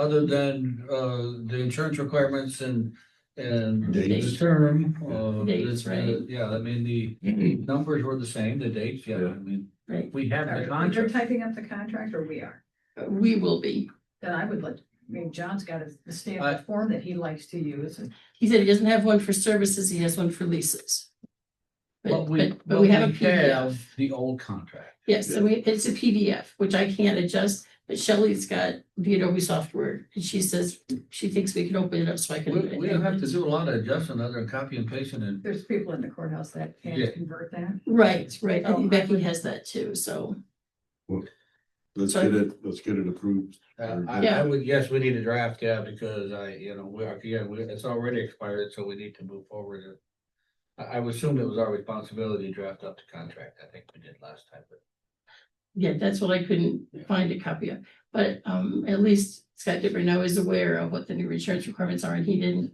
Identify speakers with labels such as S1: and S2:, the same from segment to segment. S1: other than, uh, the insurance requirements and, and the
S2: Dates.
S1: term, uh,
S3: Dates,
S1: this,
S3: right.
S1: yeah, I mean, the
S2: Mm-hmm.
S1: numbers were the same, the dates, yeah, I mean,
S3: Right.
S1: we have the
S4: You're
S1: contract.
S4: typing up the contract or we are?
S3: We will be.
S4: Then I would let, I mean, John's got a a
S1: I-
S4: standard form that he likes to use and
S3: He said he doesn't have one for services, he has one for leases. But,
S1: What
S3: but, but we have a
S1: what we
S3: PDF.
S1: have, The old contract.
S3: Yes, so we, it's a PDF, which I can't adjust, but Shelley's got the Adobe software, and she says, she thinks we can open it up so I
S1: We,
S3: can.
S1: we don't have to do a lot of adjustment other than copy and pasting and
S4: there's people in the courthouse that
S1: Yeah.
S4: can convert that.
S3: Right, right, I
S4: Oh, I
S3: think Becky
S4: would-
S3: has that too, so,
S2: Let's
S3: So-
S2: get it, let's get it approved.
S1: Uh,
S2: Or
S1: I,
S3: Yeah.
S1: I would, yes, we need a draft, yeah, because I, you know, we, are- yeah, we, it's already expired, so we need to move forward. and- I, I would assume it was our responsibility to draft up the contract, I think we did last time, but.
S3: yeah, that's what I couldn't find a copy of. But, um, at least Scott Dipper now is aware of what the new insurance requirements are, and he didn't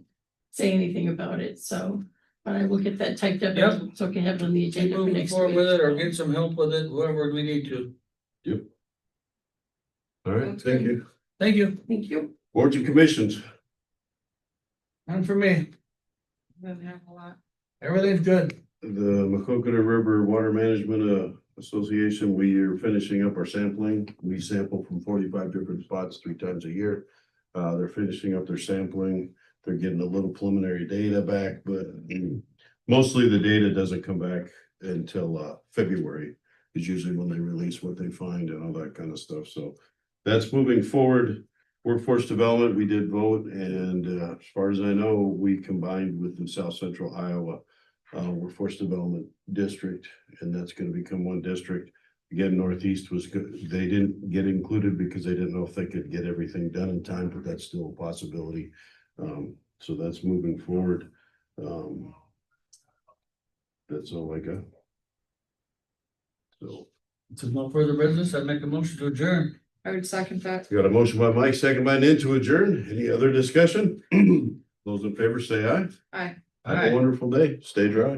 S3: say anything about it, so. But I will get that typed up, and so I can have it on the agenda for
S1: Moving
S3: next
S1: forward
S3: week.
S1: with it or get some help with it, whoever we need to,
S2: All right, thank you.
S1: thank you,
S3: Thank you.
S2: Boards and commissions,
S1: and for me,
S5: Doesn't have a lot.
S1: everything's good.
S2: the Macocata River Water Management uh, Association, we are finishing up our sampling. We sample from forty-five different spots three times a year. Uh, they're finishing up their sampling. They're getting a little preliminary data back, but mostly the data doesn't come back until uh, February is usually when they release what they find and all that kind of stuff. So that's moving forward. Workforce development, we did vote, and uh, as far as I know, we combined with the South Central Iowa uh, Workforce Development District, and that's gonna become one district. Again, Northeast was good. They didn't get included because they didn't know if they could get everything done in time, but that's still a possibility. Um, so that's moving forward. Um, that's all I got. So,
S1: To no further business, I make a motion to adjourn.
S5: I would second that.
S2: we got a motion by Mike, second by Nan to adjourn. Any other discussion? Those in favor say aye.
S5: Aye.
S2: Have a wonderful day. Stay dry.